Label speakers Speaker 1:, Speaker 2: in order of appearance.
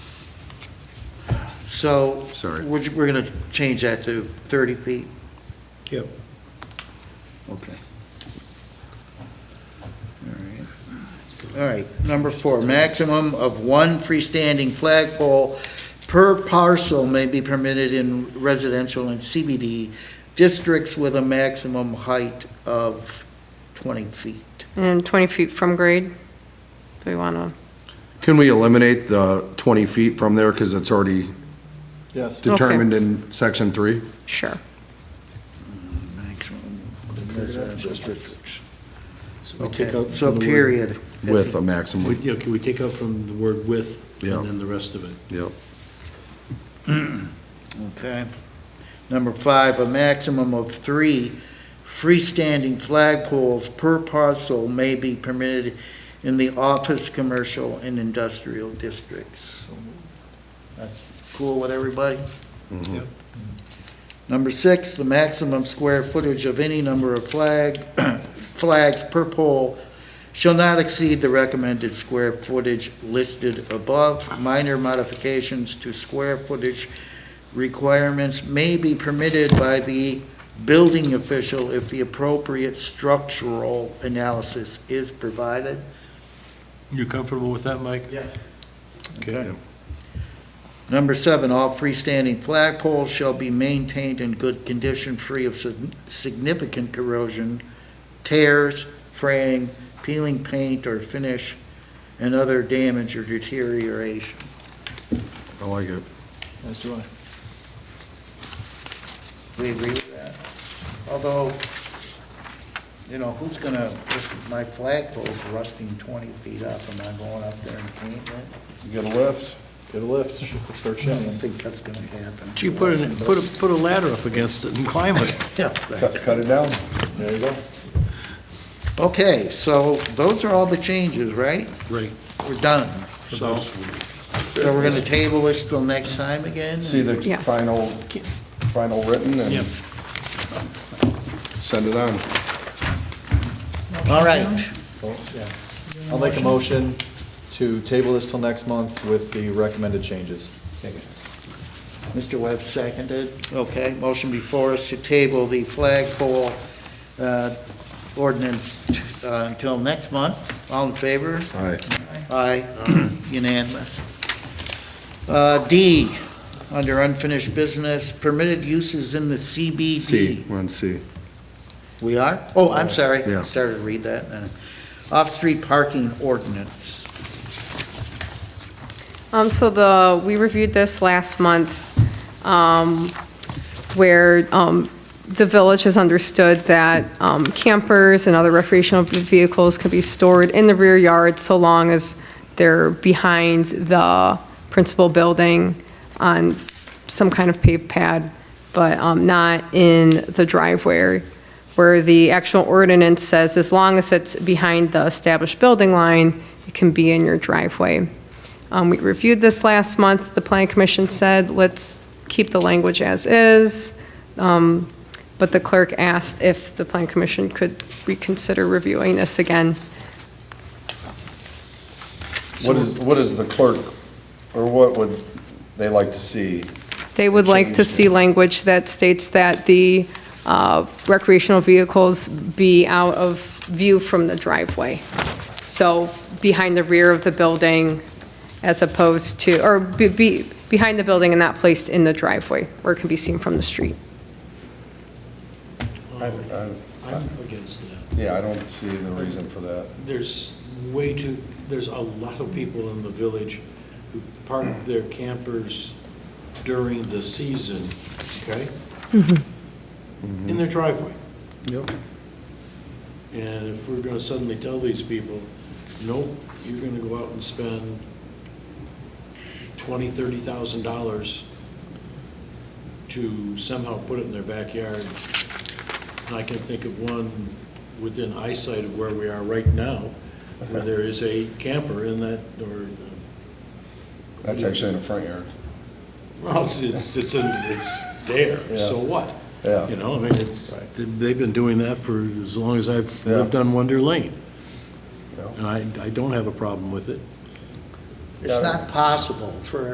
Speaker 1: So.
Speaker 2: Sorry.
Speaker 1: We're, ju- we're gonna change that to thirty feet.
Speaker 3: Yep.
Speaker 1: Okay. All right. All right, number four, maximum of one freestanding flagpole per parcel may be permitted in residential and CBD districts with a maximum height of twenty feet.
Speaker 4: And 20 feet from grade? Do we want to?
Speaker 2: Can we eliminate the 20 feet from there, because it's already
Speaker 5: Yes.
Speaker 2: determined in section three?
Speaker 4: Sure.
Speaker 3: Mm,
Speaker 1: Maximum of residential districts.
Speaker 3: So we take
Speaker 1: Okay,
Speaker 3: out
Speaker 1: so
Speaker 3: the word-
Speaker 1: period.
Speaker 2: With a
Speaker 3: we-
Speaker 2: maximum,
Speaker 3: Yeah, can we take out from the word with
Speaker 2: Yeah.
Speaker 3: and then the rest of it?
Speaker 2: yep.
Speaker 1: Okay. Number five, a maximum of three freestanding flagpoles per parcel may be permitted in the office, commercial, and industrial districts. That's cool with everybody?
Speaker 2: Mhm.
Speaker 3: Yep.
Speaker 1: Number six, the maximum square footage of any number of flag, flags per pole shall not exceed the recommended square footage listed above. Minor modifications to square footage requirements may be permitted by the building official if the appropriate structural analysis is provided.
Speaker 3: You comfortable with that, Mike?
Speaker 1: Yeah.
Speaker 3: Okay.
Speaker 1: Number seven, all freestanding flagpoles shall be maintained in good condition, free of sig- significant corrosion, tears, fraying, peeling paint or finish, and other damage or deterioration.
Speaker 2: I like it.
Speaker 5: As do I.
Speaker 1: We agree with that? Although, you know, who's gonna, if my flagpole's rusting twenty feet up, am I going up there and painting it?
Speaker 5: You get a lift, get a lift, start
Speaker 1: I don't
Speaker 5: shimmying.
Speaker 1: think that's gonna happen.
Speaker 3: So you put a, put a, put a ladder up against it and climb it.
Speaker 1: Yeah, right.
Speaker 5: Cut it down. There you go.
Speaker 1: Okay, so those are all the changes, right?
Speaker 3: Right.
Speaker 1: We're done. So, so we're gonna table this till next time again?
Speaker 2: See the
Speaker 4: Yes.
Speaker 2: final, final written
Speaker 3: Yep.
Speaker 2: and send it on.
Speaker 1: All right.
Speaker 5: Oh, I'll make a motion to table this till next month with the recommended changes.
Speaker 1: Mr. Webb seconded. Okay, motion before us to table the flagpole uh, ordinance uh, until next month. All in favor?
Speaker 2: All right.
Speaker 1: Aye, unanimous. Uh, D, under unfinished business, permitted uses in the CBD.
Speaker 2: C, we're on C.
Speaker 1: We are? Oh, I'm sorry.
Speaker 2: Yeah.
Speaker 1: Started to read that. uh, Off-street parking ordinance.
Speaker 4: Um, so the, we reviewed this last month, um, where, um, the village has understood that, um, campers and other recreational vehicles can be stored in the rear yard so long as they're behind the principal building on some kind of paved pad, but, um, not in the driveway, where the actual ordinance says as long as it's behind the established building line, it can be in your driveway. Um, We reviewed this last month. The Planning Commission said, let's keep the language as is. Um, But the clerk asked if the Planning Commission could reconsider reviewing this again.
Speaker 2: What is, what is the clerk, or what would they like to see?
Speaker 4: They would like to
Speaker 2: Change.
Speaker 4: see language that states that the uh, recreational vehicles be out of view from the driveway. So behind the rear of the building as opposed to, or be- be, behind the building and not placed in the driveway where it can be seen from the street.
Speaker 2: I- I-
Speaker 6: I'm against that.
Speaker 2: Uh, Yeah, I don't see the reason for that.
Speaker 6: There's way too, there's a lot of people in the village who park their campers during the season, okay? In their driveway.
Speaker 2: Yep.
Speaker 6: And if we're gonna suddenly tell these people, nope, you're gonna go out and spend twenty, thirty thousand dollars to somehow put it in their backyard. And I can think of one within eyesight of where we are right now, where there is a camper in that, or,
Speaker 2: That's actually in the front yard.
Speaker 6: well, it's, it's, it's in- it's there, so what?
Speaker 2: Yeah.
Speaker 6: You know, I mean, it's, they've been doing that for as long as I've lived
Speaker 2: Yeah.
Speaker 6: on Wonder Lane.
Speaker 2: Yeah.
Speaker 6: And I, I don't have a problem with it.
Speaker 1: It's not possible for